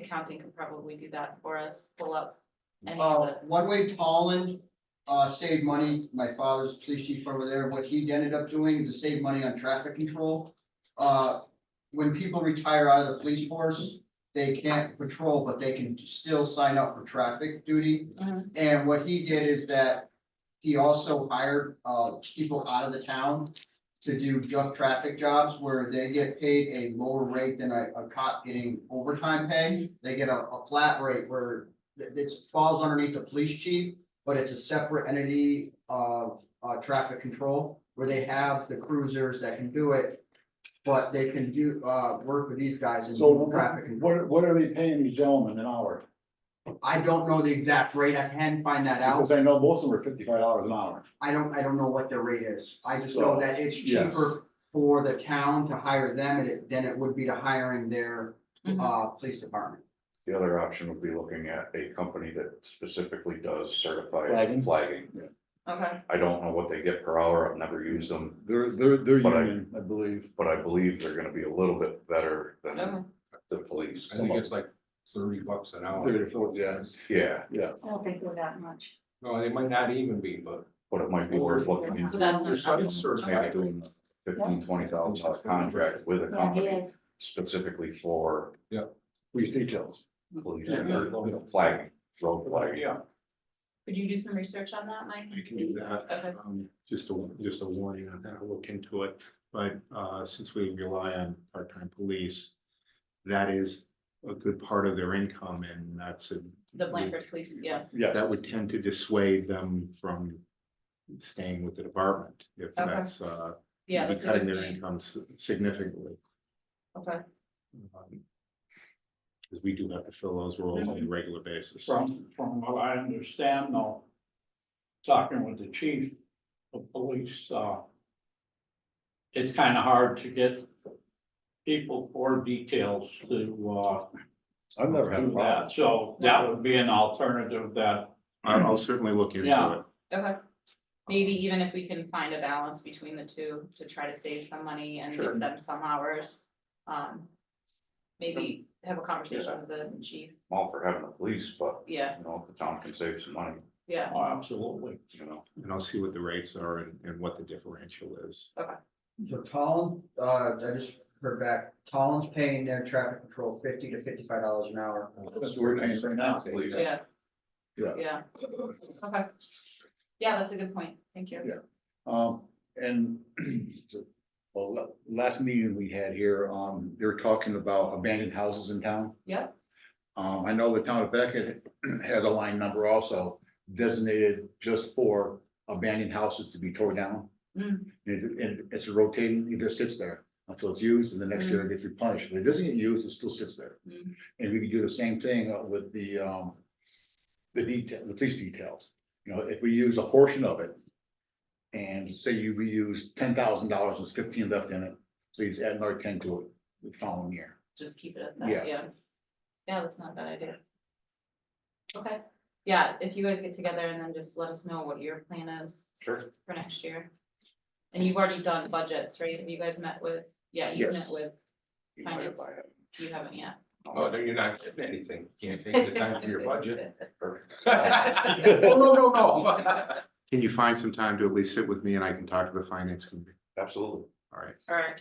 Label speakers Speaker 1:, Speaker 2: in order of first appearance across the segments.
Speaker 1: accounting could probably do that for us, pull up any of
Speaker 2: Uh,
Speaker 1: the,
Speaker 2: one way Tolland, uh, saved money, my father's police chief over there, what he ended up doing to save money on traffic control. Uh, when people retire out of the police force, they can't patrol, but they can still sign up for traffic duty.
Speaker 1: Mhm.
Speaker 2: And what he did is that he also hired, uh, people out of the town to do junk traffic jobs where they get paid a lower rate than a, a cop getting overtime pay. They get a, a flat rate where that it falls underneath the police chief, but it's a separate entity of uh traffic control where they have the cruisers that can do it. But they can do uh work with these guys and
Speaker 3: So
Speaker 2: do traffic
Speaker 3: what,
Speaker 2: control.
Speaker 3: what- what are they paying these gentlemen an hour?
Speaker 2: I don't know the exact rate. I can find that out.
Speaker 3: Because I know most of them are fifty-five dollars an hour.
Speaker 2: I don't, I don't know what their rate is. I just know
Speaker 3: So,
Speaker 2: that it's
Speaker 3: yes.
Speaker 2: cheaper for the town to hire them and it- than it would be to hiring their
Speaker 1: Mhm.
Speaker 2: uh police department.
Speaker 4: The other option would be looking at a company that specifically does
Speaker 3: Flagging?
Speaker 4: certified flagging.
Speaker 1: okay,
Speaker 4: I don't know what they get per hour. I've never used them,
Speaker 3: They're, they're, they're
Speaker 4: But I-
Speaker 3: union, I believe.
Speaker 4: but I believe they're gonna be a little bit better
Speaker 1: okay.
Speaker 4: than
Speaker 5: Oh.
Speaker 4: the police.
Speaker 6: I think it's like thirty bucks an hour.
Speaker 3: They're- so, Yeah,
Speaker 4: Yeah,
Speaker 5: I don't think we're that much.
Speaker 6: No, they might not even be, but.
Speaker 4: but it might be worth looking into.
Speaker 1: That's not-
Speaker 6: There's some
Speaker 4: Maybe
Speaker 6: certified.
Speaker 4: doing a fifteen, twenty thousand dollar contract with a
Speaker 5: Yeah, he
Speaker 4: company
Speaker 5: is.
Speaker 4: specifically for
Speaker 3: police details.
Speaker 4: police
Speaker 6: Yeah.
Speaker 4: or flagging, road flagging.
Speaker 6: Yeah,
Speaker 1: Could you do some research on that, Mike?
Speaker 6: I can do that.
Speaker 1: Okay.
Speaker 6: Um, Just a, just a warning on that, I'll look into it, but uh, since we rely on part-time police, that is a good part of their income and that's a.
Speaker 1: The Blanford Police, yeah,
Speaker 3: Yeah,
Speaker 6: That would tend to dissuade them from staying with the department if
Speaker 1: Okay.
Speaker 6: that's uh.
Speaker 1: yeah.
Speaker 6: be
Speaker 1: that's a
Speaker 6: Cutting
Speaker 1: good
Speaker 6: their
Speaker 1: point.
Speaker 6: income s- significantly.
Speaker 1: Okay,
Speaker 6: Because Um, we do have to fill those roles
Speaker 3: Mm-hmm.
Speaker 6: on a regular basis.
Speaker 7: From, from what I understand though, talking with the chief of police, uh, it's kind of hard to get people for details to,
Speaker 3: I've never
Speaker 7: uh,
Speaker 3: had a
Speaker 7: do
Speaker 3: problem.
Speaker 7: that. So that would be an alternative that,
Speaker 6: I- I'll certainly look into
Speaker 7: Yeah.
Speaker 6: it.
Speaker 1: okay. Maybe even if we can find a balance between the two to try to save some money and
Speaker 7: Sure.
Speaker 1: give them some hours. Um, maybe have a conversation
Speaker 4: Yeah.
Speaker 1: with the chief,
Speaker 4: I'm all for having the police, but
Speaker 1: yeah,
Speaker 4: you know, if the town can save some money,
Speaker 1: yeah,
Speaker 7: oh, absolutely.
Speaker 4: you know.
Speaker 6: And I'll see what the rates are and, and what the differential is.
Speaker 2: So Tolland, uh, I just heard back, Tolland's paying their traffic control fifty to fifty-five dollars an hour.
Speaker 3: Oh,
Speaker 7: That's what we're paying for now.
Speaker 4: Please.
Speaker 1: yeah.
Speaker 3: Yeah.
Speaker 1: Yeah, okay. Yeah, that's a good point, thank you.
Speaker 3: Yeah. Um, and well, la- last meeting we had here, um, they were talking about abandoned houses in town.
Speaker 1: Yep.
Speaker 3: Um, I know the town of Beckett has a line number also designated just for abandoned houses to be tore down.
Speaker 1: Hmm.
Speaker 3: And, it- and it's rotating, it just sits there until it's used and the next year it gets replenished. If it doesn't get used, it still sits there.
Speaker 1: Hmm.
Speaker 3: And we could do the same thing uh, with the, um, the detail, the police details. You know, if we use a portion of it and say you reuse ten thousand dollars, there's fifteen left in it, so you just add another ten to it the following year.
Speaker 1: just keep it at that,
Speaker 3: Yeah.
Speaker 1: yeah. Yeah, that's not a bad idea. Okay, yeah, if you guys get together and then just let us know what your plan is
Speaker 4: Sure.
Speaker 1: for next year. And you've already done budgets, right? Have you guys met with, yeah, you
Speaker 3: Yes.
Speaker 1: met with,
Speaker 4: you might have-
Speaker 1: Finance. you haven't yet.
Speaker 6: Oh, no, you're not getting anything. Can't take the time for your budget.
Speaker 3: Oh, no, no, no.
Speaker 6: Can you find some time to at least sit with me and I can talk to the finance committee?
Speaker 4: Absolutely.
Speaker 6: All right,
Speaker 1: All right,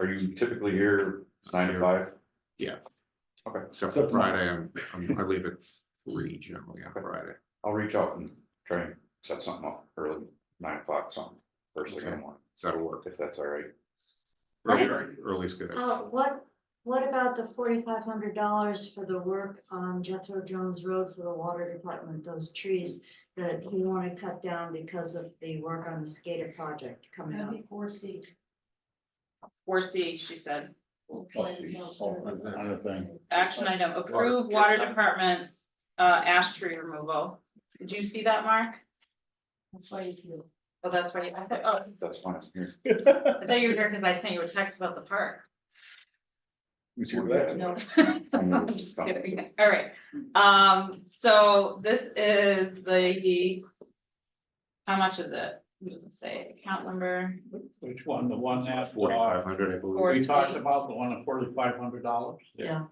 Speaker 4: Are you typically here nine to five?
Speaker 6: except for Friday, I'm, I'm- I leave at three generally on Friday.
Speaker 4: I'll reach out and try and set something up early, nine o'clock something, first thing in the
Speaker 6: Okay.
Speaker 4: morning,
Speaker 6: That'll work.
Speaker 4: if that's all right.
Speaker 6: Early, early's good.
Speaker 5: Uh, what, what about the forty-five hundred dollars for the work on Jethro Jones Road for the water department, those trees that he wanted cut down because of the work on the SCADA project coming up?
Speaker 1: four C, she said,
Speaker 3: Another thing.
Speaker 1: action item, approve water department, uh, ash tree removal. Did you see that, Mark?
Speaker 5: That's why he's here.
Speaker 1: Oh, that's right, I thought, oh,
Speaker 4: That's fine. Here.
Speaker 1: I thought you were here because I sent you a text about the park.
Speaker 3: We should do that.
Speaker 1: No.
Speaker 4: I'm
Speaker 1: I'm just
Speaker 4: just kidding.
Speaker 1: kidding. All right, um, so this is the. How much is it? It doesn't say account number.
Speaker 7: Which one, the one that, uh,
Speaker 6: Forty-five hundred, I believe.
Speaker 1: Forty.
Speaker 7: we talked about, the one at forty-five hundred dollars?
Speaker 5: Yeah,